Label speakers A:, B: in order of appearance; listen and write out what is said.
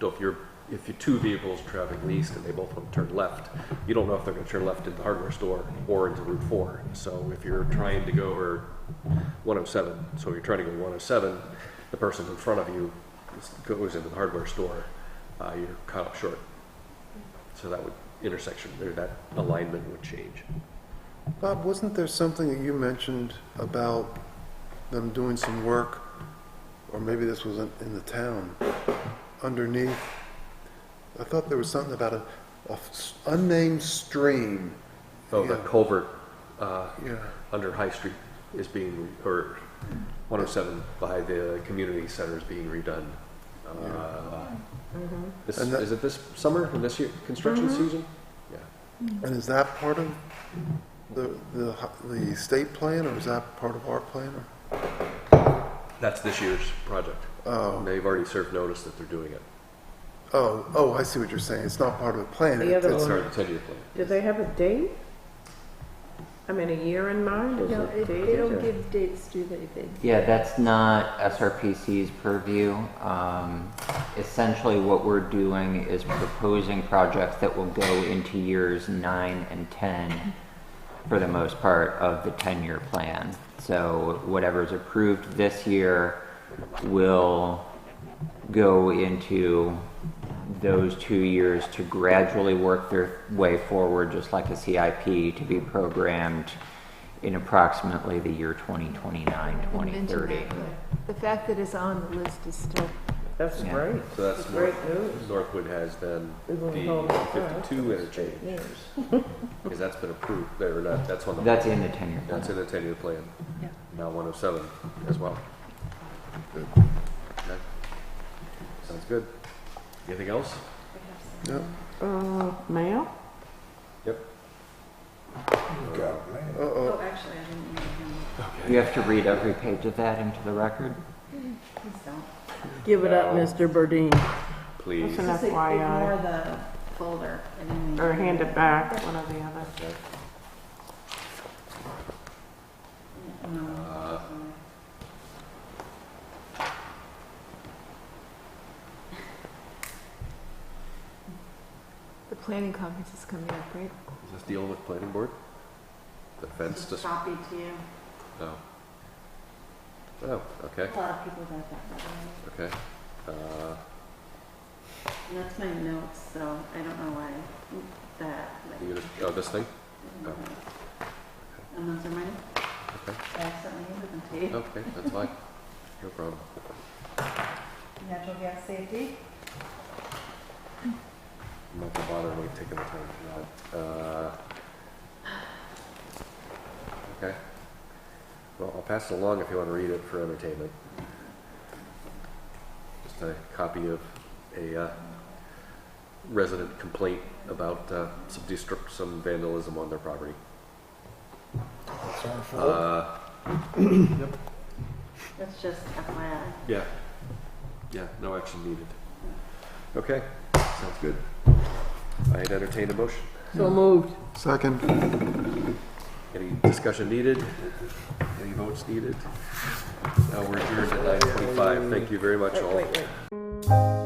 A: So if you're, if you two vehicles traveling east and they both want to turn left, you don't know if they're going to turn left into the hardware store or into Route 4. So if you're trying to go, or 107, so you're trying to go 107, the person in front of you goes into the hardware store, uh, you're caught up short. So that would, intersection, there, that alignment would change.
B: Bob, wasn't there something that you mentioned about them doing some work, or maybe this was in in the town, underneath? I thought there was something about a, a s- unnamed stream.
A: Oh, the
B: Yeah.
A: culvert uh,
B: Yeah.
A: under High Street is being, re- or 107 by the community center is being redone. Uh, This,
B: And that-
A: is it this summer, in this year, construction
C: Mm-hmm.
A: season? Yeah.
B: And is that part of the, the, h- the state plan, or is that part of our plan? or-
A: That's this year's project.
B: Oh,
A: They've already served notice that they're doing it.
B: oh, oh, I see what you're saying. It's not part of the plan.
C: The other
B: It's-
A: It's
C: one.
A: our 10-year plan.
C: Do they have a date? I mean, a year in mind, is
D: No,
C: it
D: it- they
C: dated?
D: don't
C: or-
D: give dates, do they, They-
E: Yeah, that's not SRPC's purview. Um, Essentially, what we're doing is proposing projects that will go into years nine and 10, for the most part, of the 10-year plan. So whatever's approved this year will go into those two years to gradually work their way forward, just like a CIP, to be programmed in approximately the year 2029,
D: I didn't mention
E: 2030.
D: that, but The fact that it's on the list is still,
C: That's
E: Yeah.
C: great.
A: So that's
C: That's great
A: North-
C: news.
A: Northwood has then
C: We've
A: the
C: been told that, all right.
A: 52 interchange, because that's been approved, they're not, that's on the.
E: That's in the 10-year plan.
A: That's in the 10-year plan. Now 107 as well. Okay. Sounds good. Anything else?
B: No.
C: Uh, mail?
A: Yep.
B: Uh-oh,
F: Oh, actually, I didn't read him.
E: You have to read every page of that into the record?
F: Please don't.
C: Give it up,
A: No.
C: Mr. Burdine,
A: Please.
C: Listen. An
F: Just
C: FYI.
F: Ignore the folder and then.
C: uh, or hand it back, one or the other.
F: No.
A: Uh,
D: the planning conference is coming up, right?
A: Is this dealing with planning board? The fence
F: Just
A: just,
F: copy to you.
A: no. Oh, okay,
F: A lot of people got that. by the
A: okay. Uh,
F: way. And that's my notes, so I don't know why that. like,
A: you gonna, oh, this thing?
F: I don't know. And those are mine.
A: Okay.
F: I accidentally handed them to you.
A: Okay, that's fine. No problem.
F: Natural gas safety.
A: I'm not gonna bother like taking the time for that. Uh, Okay. Well, I'll pass it along if you want to read it for entertainment. Just a copy of a uh, resident complaint about uh, some destruct, some vandalism on their property. Uh,
F: That's just FYI.
A: Yeah. Yeah, no action needed. Okay, sounds good. I'd entertain a motion.
C: So moved.
B: second.
A: Any discussion needed? Any votes needed? Now we're adjourned at nine forty-five. Thank you very much all.
C: Wait, wait.